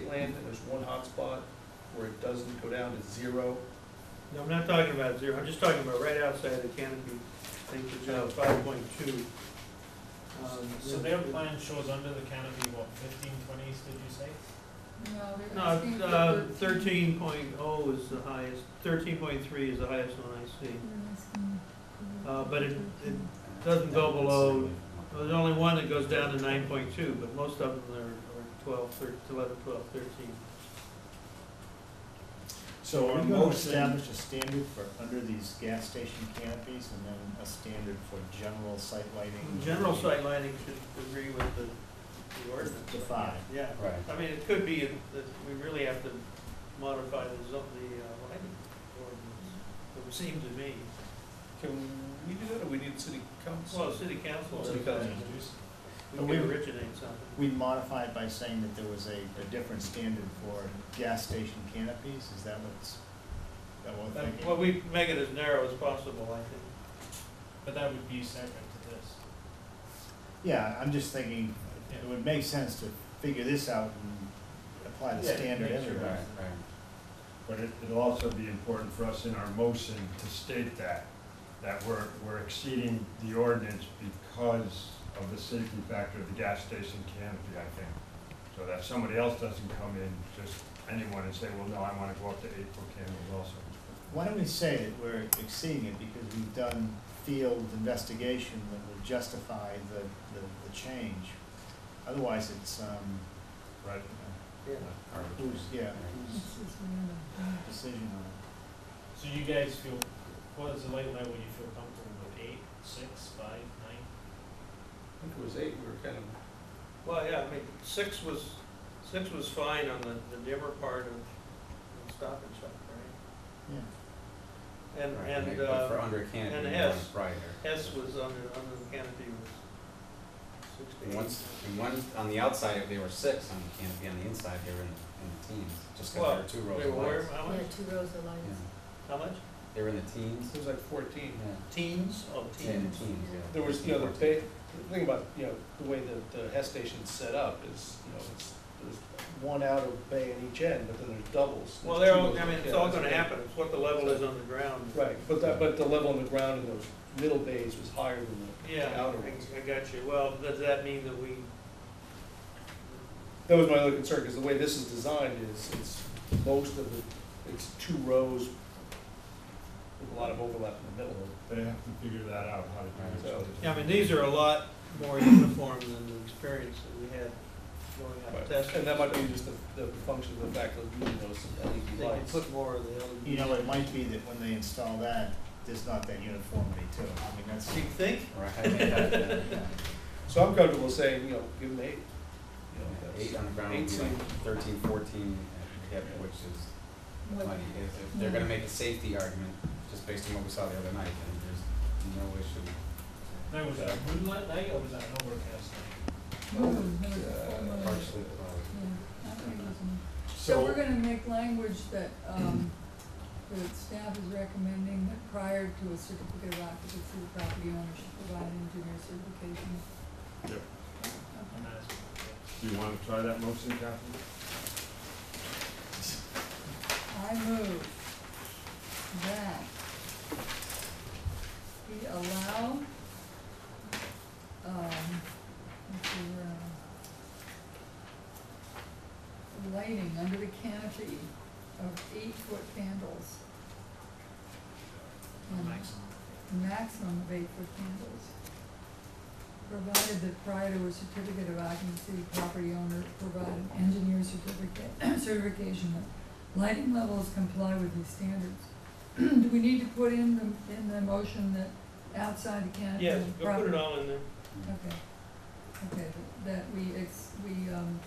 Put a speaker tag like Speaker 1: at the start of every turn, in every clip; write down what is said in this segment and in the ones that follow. Speaker 1: plan, and there's one hotspot where it doesn't go down to zero.
Speaker 2: No, I'm not talking about zero, I'm just talking about right outside the canopy, I think it's uh five point two. Um,
Speaker 3: So their plan shows under the canopy, what, fifteen, twenty, did you say?
Speaker 4: No, they're
Speaker 2: No,
Speaker 4: asking for
Speaker 2: uh,
Speaker 4: thirteen.
Speaker 2: thirteen point oh is the highest, thirteen point three is the highest one I see.
Speaker 4: They're asking for
Speaker 2: Uh, but it- it-
Speaker 4: 13.
Speaker 2: Doesn't go below, well, there's only one that goes down to nine point two, but most of them are are twelve, thir- eleven, twelve, thirteen.
Speaker 5: So
Speaker 6: Are
Speaker 5: are
Speaker 6: we
Speaker 5: we
Speaker 6: gonna
Speaker 5: going
Speaker 6: establish
Speaker 5: establish a standard for under these gas station canopies and then a standard for general site lighting?
Speaker 2: General sight lighting should agree with the, the ordinance.
Speaker 5: The five.
Speaker 2: Yeah,
Speaker 5: Right.
Speaker 2: I mean, it could be that we really have to modify the zone, the uh, lighting ordinance, it would seem to me.
Speaker 1: Can we do that, or we need city council?
Speaker 2: Well, city council,
Speaker 1: City
Speaker 2: we
Speaker 1: council.
Speaker 5: But
Speaker 2: could
Speaker 5: we-
Speaker 2: originate something.
Speaker 5: We modify it by saying that there was a, a different standard for gas station canopies, is that what's, that what we're
Speaker 2: Well, we
Speaker 5: thinking?
Speaker 2: make it as narrow as possible, I think.
Speaker 3: But that would be separate to this.
Speaker 5: Yeah, I'm just thinking, it would make sense to figure this out and apply the
Speaker 3: Yeah,
Speaker 5: standard
Speaker 3: make sure.
Speaker 5: everywhere.
Speaker 6: But it, it'll also be important for us in our motion to state that, that we're, we're exceeding the ordinance because of the safety factor of the gas station canopy, I think. So that somebody else doesn't come in, just anyone and say, well, no, I wanna go up to eight foot candles also.
Speaker 5: Why don't we say that we're exceeding it because we've done field investigation that would justify the, the, the change? Otherwise, it's, um,
Speaker 6: Right.
Speaker 5: you know,
Speaker 2: Yeah.
Speaker 5: who's, yeah, whose
Speaker 4: This is where the-
Speaker 5: decision on
Speaker 3: So you guys feel, what is the light level you feel comfortable with, eight, six, five, nine?
Speaker 1: I think it was eight, we were kind of,
Speaker 2: Well, yeah, I mean, six was, six was fine on the, the dimmer part of Stop and Shop, right?
Speaker 5: it?
Speaker 2: And,
Speaker 7: Right,
Speaker 2: and,
Speaker 7: but For
Speaker 2: uh,
Speaker 7: under canopy,
Speaker 2: and
Speaker 7: you
Speaker 2: S.
Speaker 7: want brighter.
Speaker 2: S was under, under the canopy was six to
Speaker 7: And
Speaker 2: eight.
Speaker 7: once, and one, on the outside, they were six on the canopy, on the inside, they were in, in the teens, just
Speaker 2: Well,
Speaker 7: because there were two rows
Speaker 2: They
Speaker 7: of
Speaker 2: were,
Speaker 7: lights.
Speaker 2: how much?
Speaker 4: Yeah, two rows of lights.
Speaker 7: Yeah.
Speaker 2: How much?
Speaker 7: They were in the teens,
Speaker 1: it was like fourteen.
Speaker 7: yeah,
Speaker 2: Teens? Oh,
Speaker 7: Yeah, in the
Speaker 2: teens.
Speaker 7: teens, yeah.
Speaker 1: There was, you know, the,
Speaker 7: 14.
Speaker 1: ba- the thing about, you know, the way that the Hess station's set up is, you know, it's, there's one out of bay in each end, but then there's doubles.
Speaker 2: Well,
Speaker 1: There's
Speaker 2: they're
Speaker 1: two
Speaker 2: all,
Speaker 1: rows
Speaker 2: I
Speaker 1: of
Speaker 2: mean, it's
Speaker 1: kids.
Speaker 2: all gonna happen, it's what the level is on the ground.
Speaker 1: Right, but that, but the level on the ground in those middle bays was higher than
Speaker 2: Yeah,
Speaker 1: the outer ones.
Speaker 2: I, I got you. Well, does that mean that we,
Speaker 1: That was my other concern, because the way this is designed is, it's most of the, it's two rows with a lot of overlap in the middle of it.
Speaker 6: They have to figure that out, how to do it.
Speaker 1: So-
Speaker 2: yeah, I mean, these are a lot more uniform than the experience that we had going out testing.
Speaker 1: And that might be just the, the function of the fact of using those LED
Speaker 2: They can
Speaker 1: lights.
Speaker 2: put more of the LED.
Speaker 5: You know, it might be that when they install that, there's not that uniformity too. I mean, that's,
Speaker 2: Do you think?
Speaker 7: Right, yeah, yeah.
Speaker 1: So I'm comfortable saying, you know, give them eight. You know, that's-
Speaker 7: Eight on the ground, would be like thirteen, fourteen, uh, yeah, which is
Speaker 4: What-
Speaker 7: plenty. If, if they're gonna make a safety argument, just based on what we saw the other night, then there's no issue.
Speaker 3: Now, was that a moonlight night or was that an overcast night?
Speaker 4: No, no, it's
Speaker 7: Uh,
Speaker 4: full moon.
Speaker 7: Partially, uh,
Speaker 4: Yeah, I think it was moon. So we're
Speaker 6: So,
Speaker 4: gonna make language that, um, the staff is recommending that prior to a certificate of occupancy, the property owner should provide engineer certification.
Speaker 6: Yep.
Speaker 4: Okay.
Speaker 3: And that's, yeah.
Speaker 6: do you wanna try that motion, Catherine?
Speaker 4: I move that we allow, um, let's see, where am I? uh, lighting under the canopy of eight-foot candles. Um, Maximum of eight-foot candles. Provided that prior to a certificate of occupancy, the property owner provide an engineer certificate, certification that lighting levels comply with these standards. Do we need to put in the, in the motion that outside the canopy?
Speaker 2: Yes,
Speaker 4: of
Speaker 2: go put it
Speaker 4: property-
Speaker 2: all in there.
Speaker 4: Okay, okay, that we ex, we, um,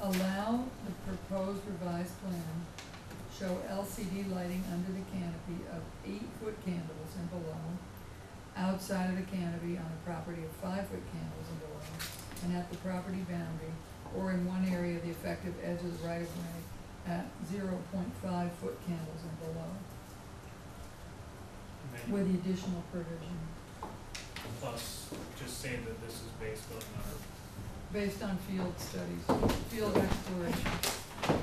Speaker 4: allow the proposed revised plan show LCD lighting under the canopy of eight-foot candles and below, outside of the canopy on a property of five-foot candles and below, and at the property boundary, or in one area, the effective edge of the right-of-way at zero point five-foot candles and below,
Speaker 3: And then
Speaker 4: with the additional provision,
Speaker 3: Plus, just say that this is based on our
Speaker 4: based on field studies, field exploration.